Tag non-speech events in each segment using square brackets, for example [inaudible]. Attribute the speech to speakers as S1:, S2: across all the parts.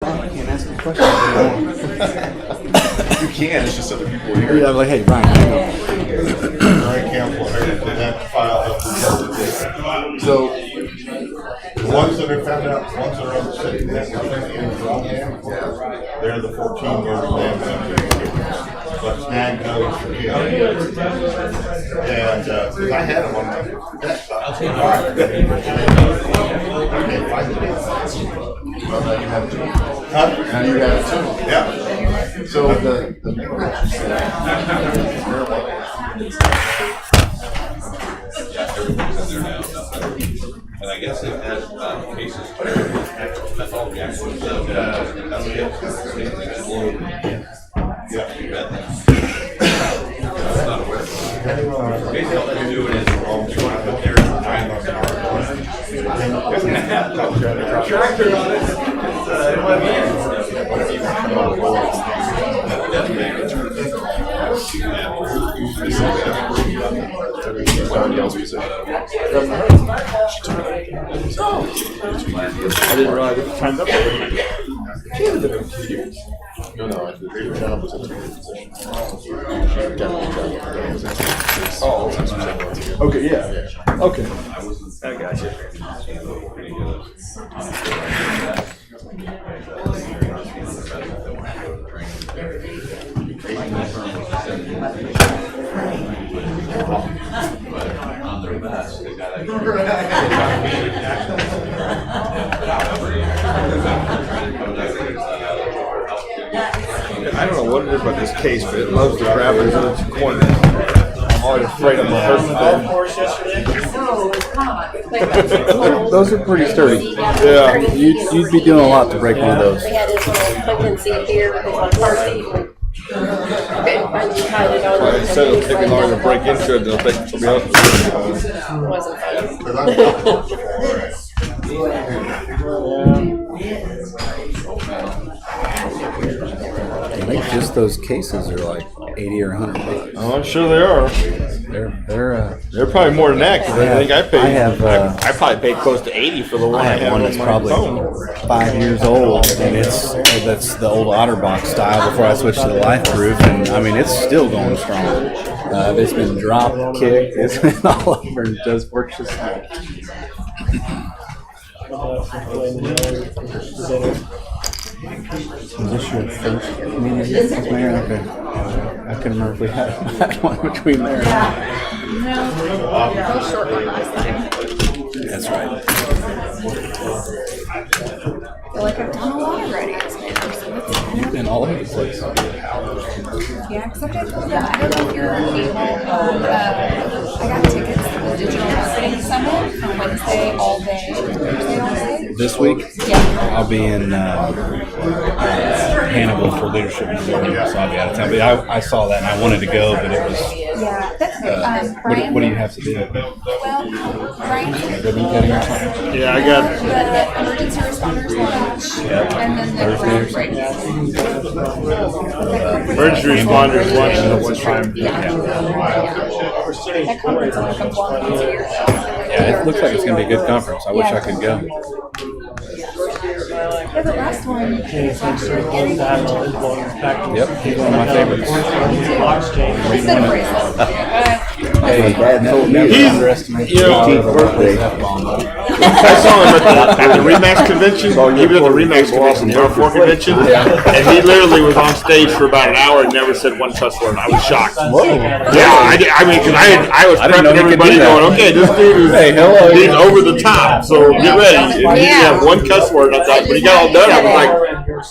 S1: I can't ask him questions anymore.
S2: You can, it's just other people here.
S1: yeah, I'm like, hey, Ryan, hang on.
S2: Very careful, I didn't have to file up with the other day. So, ones that are found out, ones that are on the city, that's the thing in the wrong hand, they're the fourteen years old. But snag goes to jail. And, uh, 'cause I had them on my desktop. I can't find them.
S3: Well, now you have two.
S2: Huh?
S3: Now you have two.
S2: Yeah.
S3: So the, the number that you said. marijuana is-
S4: Yeah, everything's in there now. And I guess it has uh, cases. That's all we actually have. That's it.
S2: Yeah.
S4: You bet. That's not aware. Basically, all they're doing is, um, you wanna put there, trying to Tractor on it. Whatever you want. Doesn't
S1: I didn't realize it was timed up.
S3: No, no, I did. Your job was a temporary position. Oh.
S1: Okay, yeah. Okay. I got you. I don't know what it is about this case,
S5: [laughs]
S1: but it loves to grab it in its corner. I'm always afraid I'm gonna hurt
S5: So it's not.
S1: them. Those are pretty sturdy.
S6: Yeah, you'd, you'd be doing a lot to break one of those.
S5: We had his little pregnancy here with his like car seat. Couldn't find you tied it on.
S6: Right, Instead of taking longer to break into it, they'll take somebody else.
S5: Wasn't fun.
S1: I think just those cases are like eighty or hundred bucks.
S6: Oh, I'm sure they are.
S1: They're, they're, uh,
S6: They're probably more than that because
S1: I
S6: I
S1: have-
S6: think I paid.
S1: I have, uh,
S6: I, I probably paid close to eighty for the one
S1: I
S6: I,
S1: have one
S6: on
S1: that's
S6: my
S1: probably
S6: phone.
S1: five years old, and it's that's the old OtterBox style before I switched to the Life Proof, and I mean it's still going strong. Uh, it's been drop kicked, it's [laughs] been all over, and it just works just fine. Is this your first meeting as mayor? Okay. I couldn't remember if we had [laughs] had one between there.
S5: No, real short one last time.
S1: That's right.
S5: I feel like I've done a lot already as mayor, so it's kind of-
S1: You've been all over the place.
S5: Yeah, except I told them, I don't know if you're on cable, um, uh, I got tickets to the digital marketing summit for Wednesday all day, Thursday all day.
S1: This week,
S5: Yeah.
S1: I'll be in uh, uh, Hannibal for leadership, Missouri, so I'll be out of town. But I, I saw that and I wanted to go, but it was.
S5: Yeah, that's,
S1: Uh,
S5: um,
S1: what, do-
S5: Brian.
S1: what do you have to do?
S5: Well, Brian.
S1: Ribbon cutting or something?
S6: Yeah, I
S5: The
S6: got.
S5: emergency responders lodge. And then the ground break.
S6: Emergency responders lunch at one time.
S5: That conference is like a block once a year.
S1: Yeah, it looks like it's going to be a good conference. I wish I could go.
S5: Yeah, the last one. is last year.
S1: Yep, he's one of my favorites.
S5: It's been a bracelet. Uh,
S1: Hey, Dad told me
S6: He's-
S1: underestimated
S6: you know- I saw him at the, at the Remax convention. He was at the Remax convention, the R4 convention, and he literally was on stage for about an hour and never said one cuss word. I was shocked. Yeah, I, did- I mean, because I, had- I was
S1: I didn't know
S6: prepping
S1: they could
S6: everybody
S1: do that.
S6: going, okay, this dude is
S1: Hey, hello.
S6: he's over the top, so get ready. And he didn't
S5: Yeah.
S6: have one cuss word. I thought when he got all done, I was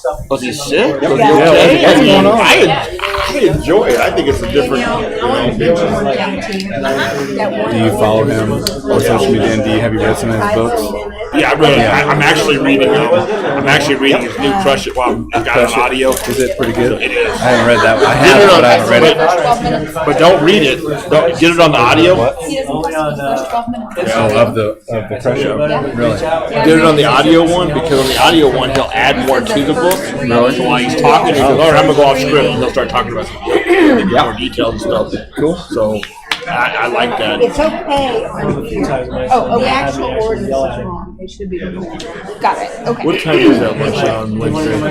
S6: like, was he sick? Was he
S1: Yeah, what's-
S6: okay?
S1: what's
S6: I mean,
S1: going on?
S6: I, I enjoy it. I think it's a different. You know,
S1: Do you follow him on social media and do you, have you read some of his books?
S6: Yeah, I read. I, I'm actually reading. Um, I'm actually reading his new Crush It. Wow, I've got an audio.
S1: Is it pretty good?
S6: It is.
S1: I haven't read that one. I
S6: No,
S1: have,
S6: no,
S1: but I
S6: no,
S1: haven't read it.
S6: but-
S5: Twelve minutes.
S6: But don't read it. Don't get it on the audio.
S5: He doesn't want to speak the first twelve minutes.
S1: Oh, of the of the crush hour. Really?
S6: Get it on the audio one because on the audio one he'll add more to the book. So while he's
S1: Oh,
S6: talking, he goes, "All right, I'm gonna go off script," and he'll start talking
S1: [clears throat]
S6: about some more details and stuff. Cool. So I, I like
S5: It's
S6: that.
S5: okay on here. Oh, the actual ordinance is wrong. It should be. Got it, okay.
S6: What time is that lunch on Wednesday?